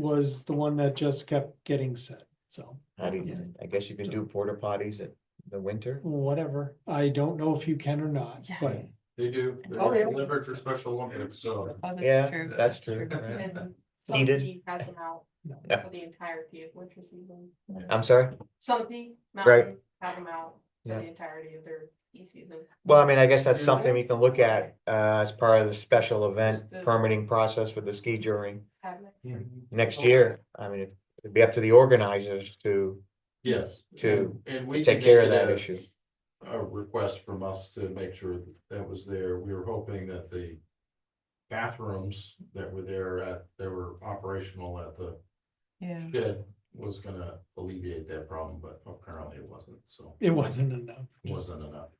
was the one that just kept getting said, so How do you, Yeah. I guess you can do porta potties in the winter? whatever. I don't know if you can or not, Yeah. but They do, they're Oh, yeah. delivered for special Olympics, so. Oh, that's Yeah, true. that's true. right. And Heated. Somebody has them out No. Yeah. for the entirety of winter season. I'm sorry? Somebody, Right. mountain, have them out for Yeah. the entirety of their ski season. Well, I mean, I guess that's Yeah. something we can look at uh as part of the special event Just the- permitting process with the ski jury Have them- next year. I mean, it'd be up to the organizers to Yes. To And- and we take can care of make that a- issue. A request from us to make sure that that was there. We were hoping that the bathrooms that were there at, that were operational at the Yeah. shed was gonna alleviate that problem, but apparently it wasn't, so it wasn't enough. it wasn't enough.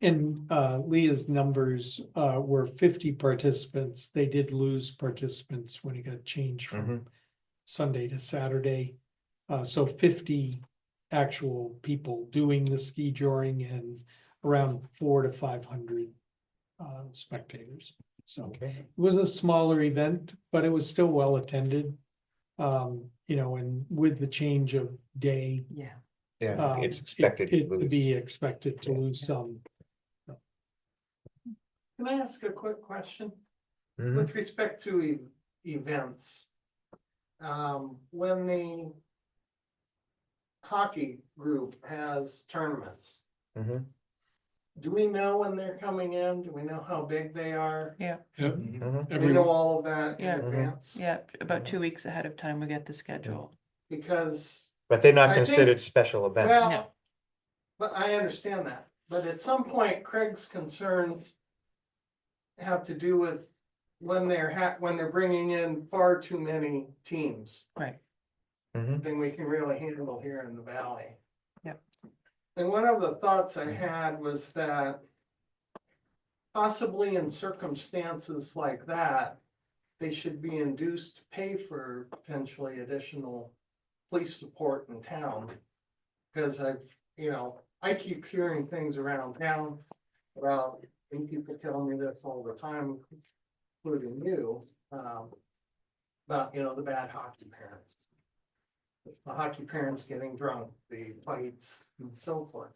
And uh Leah's numbers uh were fifty participants. They did lose participants when it got changed Mm-hmm. from Sunday to Saturday. Uh so fifty actual people doing the ski joring and around four to five hundred uh spectators. So Okay. it was a smaller event, but it was still well attended. Um, you know, and with the change of day, Yeah. Yeah, um, it's it- expected. to It would lose. be expected to Yeah. lose some. Can I ask a quick question Mm-hmm. Mhm. with respect to e- events? Um, when the hockey group has tournaments, Mhm. do we know when they're coming in? Do we know how big they are? Yep, Mhm. Mhm. Do we every, know all of that in Yeah. Mm-hmm. Mhm. advance? Yeah, about two weeks ahead of time, we get the schedule. Because, But they're I not think- considered special events. No. well, but I understand that, but at some point Craig's concerns have to do with when they're ha- when they're bringing in far too many teams. Right. Mhm. than we can really handle here in the valley. Yep. And one of the thoughts I had was that possibly in circumstances like that, they should be induced to pay for potentially additional police support in town. Because I've, you know, I keep hearing things around town about, and people telling me this all the time, including you, um, about, you know, the bad hockey parents the hockey parents getting drunk, the fights and so forth.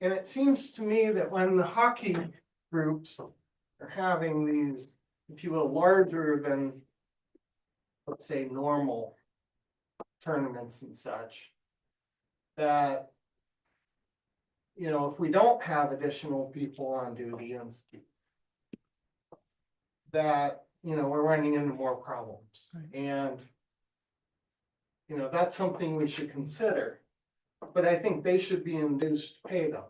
And it seems to me that when the hockey groups are having these, if you will, larger than, let's say, normal tournaments and such, that, you know, if we don't have additional people on duty and s- that, you know, we're running into more problems. Right. And you know, that's something we should consider. But I think they should be induced to pay those.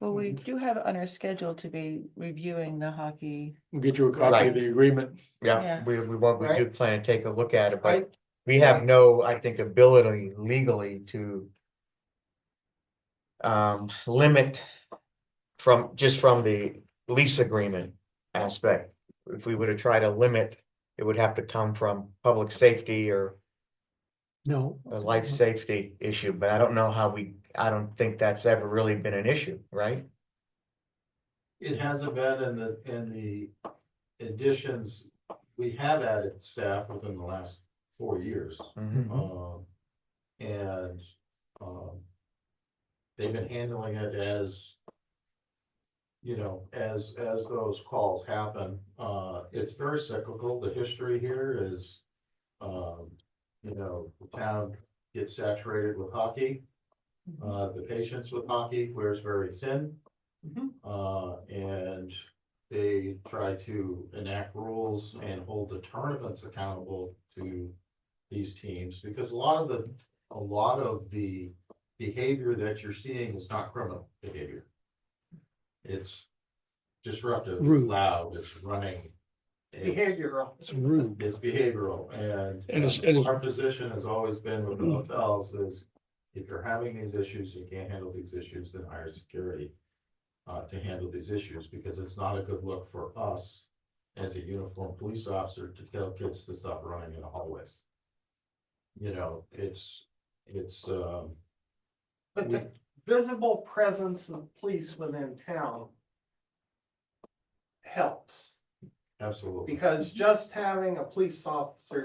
Well, we do have it on our schedule to be reviewing the hockey. we'll get you a copy Right. of the agreement. Yeah, Yeah. we, we want, we do Right. plan to take a look at it, but Right. we have no, I think, ability legally to um, limit from, just from the lease agreement aspect. If we were to try to limit, it would have to come from public safety or No. a life Mm-hmm. safety issue, but I don't know how we, I don't think that's ever really been an issue, right? It hasn't been in the, in the additions, we have added staff within the last four years. Mhm. Um, and, um, they've been handling it as, you know, as, as those calls happen. Uh, it's very cyclical. The history here is, um, you know, the town gets saturated with hockey. Uh, the patience with hockey wears very thin. Mhm. Uh, and they try to enact rules and hold the tournaments accountable to these teams, because a lot of the, a lot of the behavior that you're seeing is not criminal behavior. It's disruptive, it's Rude. loud, it's running. it's- Behavioral. It's rude. It's behavioral and. And it's- and it's- Mm. Our position has always been with the hotels is if you're having these issues, you can't handle these issues, then hire security. Uh, to handle these issues because it's not a good look for us as a uniformed police officer to tell kids to stop running in the hallways. You know, it's, it's, um, But the visible presence of police within town helps, absolutely. because just having a police officer